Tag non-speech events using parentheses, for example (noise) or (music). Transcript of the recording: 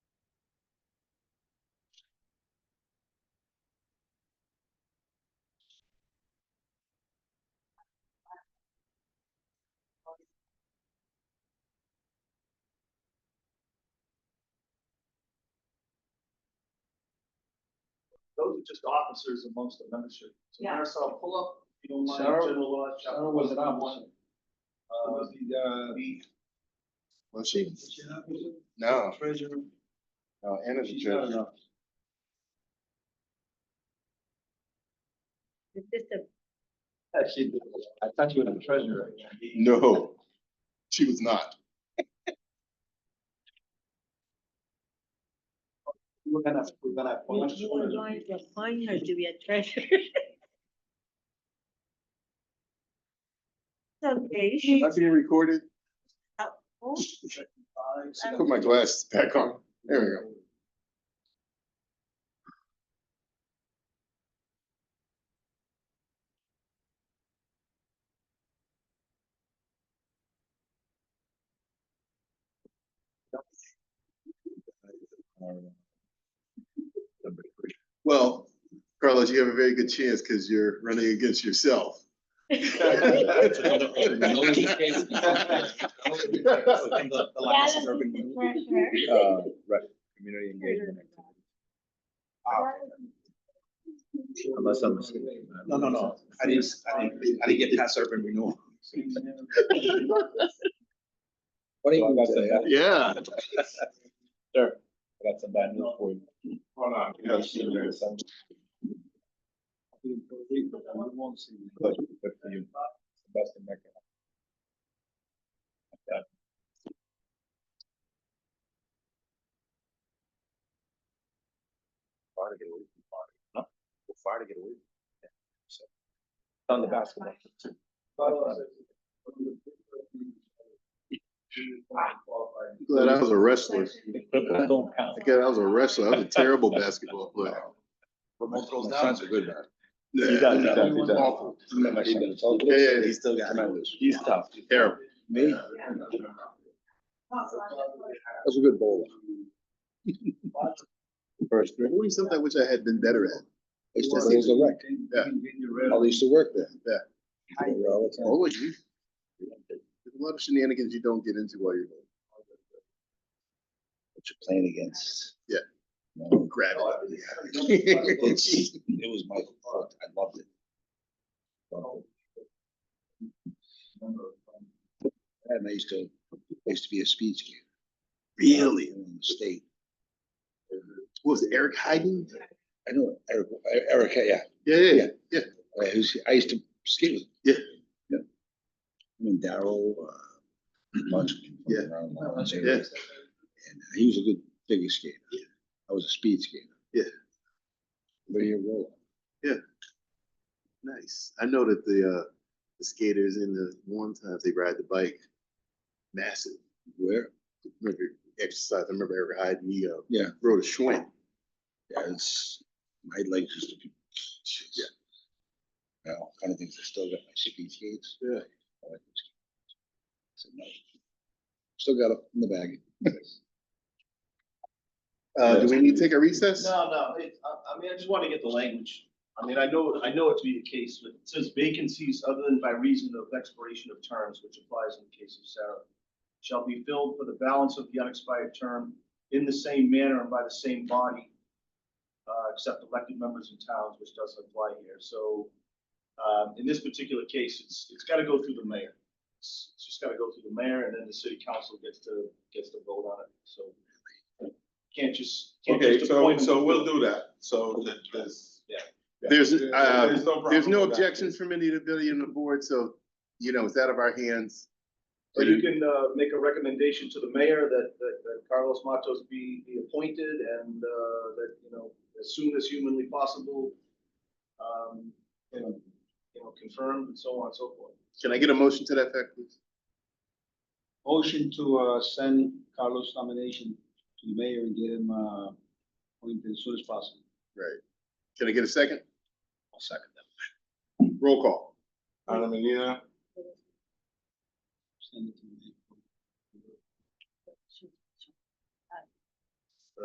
Those are just officers amongst the membership. So Yeah. Marisol, pull up, if you don't mind, Sarah- general law. chapter Sarah was an 141. officer. Uh, Was the, uh, the- Was she? was she an officer? No, Treasurer? no, Anna's a She's not judge. an officer. Is this a Yeah, she did. I thought you were the treasurer. No, she was not. We're gonna, we're gonna appoint Do you want her. to appoint her to be a (laughs) treasurer? Okay. she- Not being recorded. oh, Put my glasses back on. There we go. Well, Carlos, you have a very good chance because you're running against yourself. (laughs) Uh, right, community engagement. Unless I'm. No, no, no. I didn't, I didn't, I didn't get past urban renewal. What do you got to Yeah. Sure. I got some bad news for you. Hold on. Good, good for you. Best in America. Far to get away from fire. No, far to get away. On the basketball. Glad I was a wrestler. Don't count. I God, I was a wrestler. I was a terrible basketball player. Remote throws My down. son's a good one. He does, he does, he does. Awful. He does. Yeah, yeah, yeah. He still got it. He's tough. Terrible. Me? That's a good bowler. First grade. Only something I wish I had been better at. It's just, he's a wreck. I used to work there. Yeah. I was there all the time. Oh, wait, you- There's a lot of shenanigans you don't get into while you're What you're playing against. Yeah. No. grabbing. It's- It was my, fault. I loved it. And I used to, I used to be a speed skater. Really? In the state. What was it, Eric Hyden? I know Eric, Eric, yeah. Yeah, yeah, yeah. Uh, who's, I used to skate with. him. Yeah. Yeah. I mean, Daryl, uh, bunch of people Yeah. around when I was there. Yeah. And uh, he was a good figure skater. I was a speed skater. Yeah. Very roller. Nice. I know that the, uh, the skaters in the warm times, they ride the bike massive. Where? Remember exercise, I remember Eric Hyden, he, uh, Yeah. rode a Schwinn. Yeah, it's, my legs used to be. Yeah. Now, kind of things, I still got my speed skates. Yeah. I like those skates. So, no. Still got them in the bag. Uh, do we need to take a recess? No, no, it, I, I mean, I just want to get the language. I mean, I know, I know it to be the case, but it says vacancies other than by reason of expiration of terms, which applies in the case of Sarah, shall be filled for the balance of the unexpired term in the same manner and by the same body, uh, except elected members in towns, which doesn't apply here. So, um, in this particular case, it's, it's got to go through the mayor. It's it's just got to go through the mayor and then the city council gets to, gets to vote on it. So can't just. can't Okay, just so, appoint them. so we'll do that, so that there's. Yeah. There's, There- uh, problem There's no with that. objections from any of the billion on the board, so, you know, it's out of our hands. So you can uh, make a recommendation to the mayor that, that that Carlos Matos be, be appointed and uh, that, you know, as soon as humanly possible, um, and, you know, confirmed and so on and so forth. Can I get a motion to that effect, please? Motion to, uh, send Carlos nomination to the mayor and get him, uh, appointed as soon as possible. Can I get a second? I'll second that. Roll call. Anna Menina, Send it to him.